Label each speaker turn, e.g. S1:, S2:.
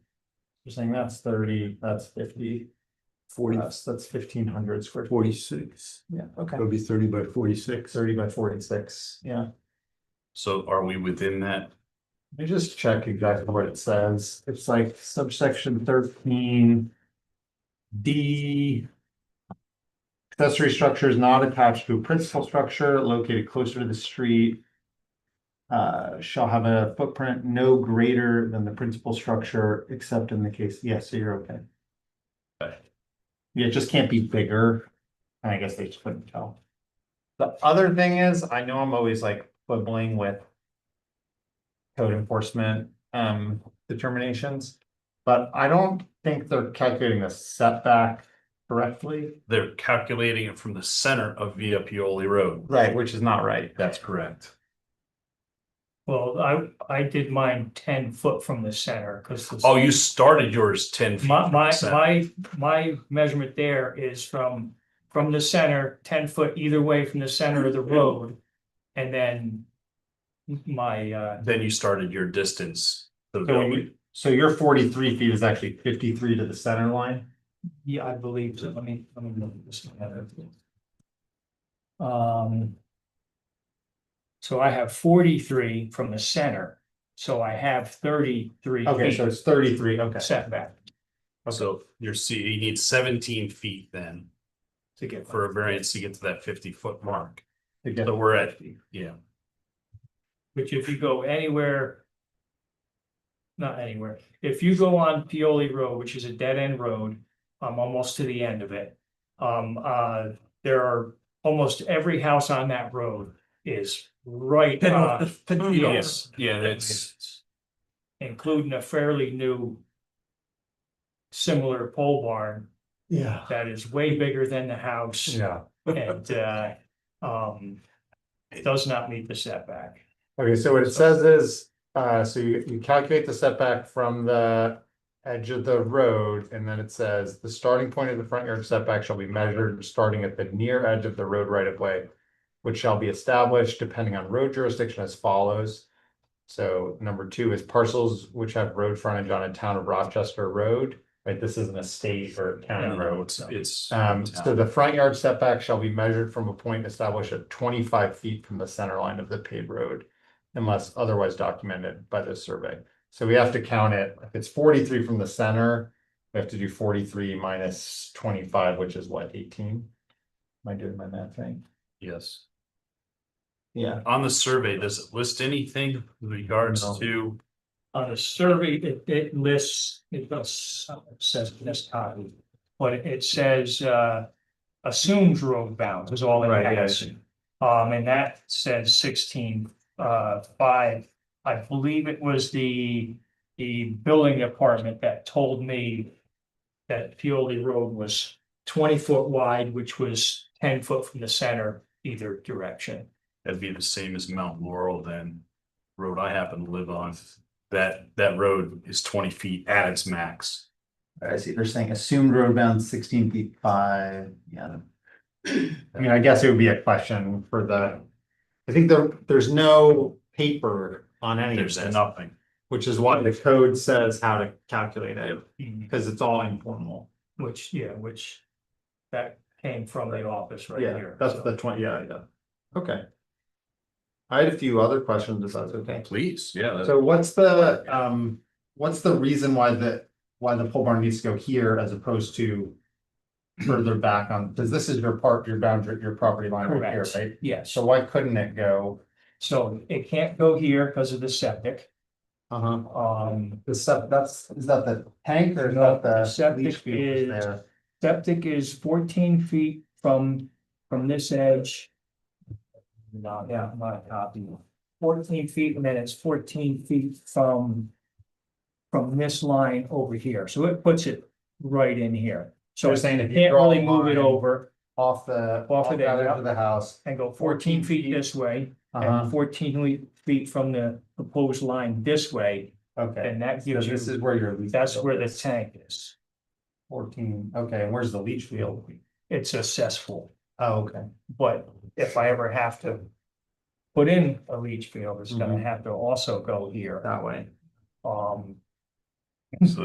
S1: You're saying that's thirty, that's fifty,
S2: forty,
S1: that's, that's fifteen hundred square. feet.
S2: forty-six.
S1: Yeah, okay.
S2: It'll be thirty by forty-six.
S1: Thirty by forty-six, yeah.
S3: So are we within that?
S1: Let me just check exactly what it says. It's like subsection thirteen. D. Accessory structure is not attached to a principal structure located closer to the street. Uh, shall have a footprint no greater than the principal structure, except in the case, yes, so you're okay.
S3: Okay.
S1: Yeah, it just can't be bigger. And I guess they just couldn't tell. The other thing is, I know I'm always like quibbling with code enforcement um determinations. But I don't think they're calculating the setback correctly.
S3: They're calculating it from the center of Via Pioli Road.
S1: Right. Which is not right.
S3: That's correct.
S4: Well, I, I did mine ten foot from the center, cause. the-
S3: Oh, you started yours ten feet.
S4: My,
S3: from the
S4: my,
S3: center.
S4: my, my measurement there is from, from the center, ten foot either way from the center of the road. And then my, uh,
S3: Then you started your distance. to the
S1: So when
S3: building.
S1: you, so your forty-three feet is actually fifty-three to the center line?
S4: yeah, I believe, so let me, let me look at this together. Um. So I have forty-three from the center, so I have thirty-three
S1: Okay, so
S4: feet
S1: it's thirty-three, okay.
S4: setback
S3: So you're see, you need seventeen feet then
S4: to get.
S3: for a variance to get to that fifty foot mark.
S1: To get-
S3: So we're at, yeah,
S4: Which if you go anywhere. Not anywhere, if you go on Pioli Road, which is a dead end road, I'm almost to the end of it. Um, uh, there are, almost every house on that road is right, uh,
S3: yes, yeah, that's.
S4: including a fairly new. Similar pole barn
S1: Yeah.
S4: that is way bigger than the house
S1: Yeah.
S4: and, uh, um. It does not meet the setback.
S1: Okay, so what it says is, uh, so you, you calculate the setback from the edge of the road, and then it says, the starting point of the front yard setback shall be measured starting at the near edge of the road right of way, which shall be established depending on road jurisdiction as follows. So number two is parcels which have road frontage on a town of Rochester road, right? This isn't a state or county
S3: No,
S1: road.
S3: it's, it's.
S1: Um, so the front yard setback shall be measured from a point established at twenty-five feet from the center line of the paved road. Unless otherwise documented by the survey. So we have to count it. If it's forty-three from the center, we have to do forty-three minus twenty-five, which is what, eighteen? Am I doing my math right?
S3: Yes.
S1: Yeah.
S3: On the survey, does it list anything with regards
S1: No.
S3: to?
S4: on the survey, it, it lists, it does, it says this copy, but it says, uh, assumes road bounds is all it
S1: Right, yeah, I
S4: has.
S1: see.
S4: Um, and that says sixteen, uh, five. I believe it was the, the building department that told me that Pioli Road was twenty foot wide, which was ten foot from the center either direction.
S3: That'd be the same as Mount Laurel then. Road I happen to live on, that, that road is twenty feet at its max.
S1: I see. They're saying assumed road bounds sixteen feet five, yeah. I mean, I guess it would be a question for the, I think there, there's no paper on any of
S3: There's
S1: this.
S3: nothing.
S1: Which is why the code says how to calculate it, because it's all informal.
S4: Which, yeah, which that came from the office right
S1: Yeah,
S4: here.
S1: that's
S4: so.
S1: the twenty, yeah, yeah. Okay. I had a few other questions, if that's okay.
S3: Please, yeah. that-
S1: So what's the, um, what's the reason why the, why the pole barn needs to go here as opposed to further back on, because this is your part, your boundary, your property line right here,
S4: Correct,
S1: right?
S4: yes.
S1: So why couldn't it go,
S4: So it can't go here because of the septic.
S1: uh-huh,
S4: Um,
S1: the sep- that's, is that the tank or is
S4: No,
S1: that
S4: the
S1: the
S4: septic
S1: leach field
S4: is-
S1: there?
S4: septic is fourteen feet from, from this edge. No, yeah, my copy. Fourteen feet and then it's fourteen feet from, from this line over here. So it puts it right in here. So
S1: You're
S4: it
S1: saying if you
S4: can't
S1: draw a
S4: really move it
S1: line
S4: over
S1: Off the, off
S4: Off
S1: the
S4: of there,
S1: edge
S4: yeah.
S1: of the house,
S4: and go fourteen feet this way.
S1: uh-huh,
S4: and fourteen le- feet from the proposed line this way,
S1: okay.
S4: and that
S1: So
S4: gives
S1: this
S4: you,
S1: is where your. leach
S4: that's
S1: field
S4: where the
S1: is.
S4: tank is.
S1: Fourteen, okay, and where's the leach field?
S4: It's a cesspool,
S1: Oh, okay.
S4: but if I ever have to put in a Um, leach field, it's gonna have to also go here.
S1: way.
S4: Um,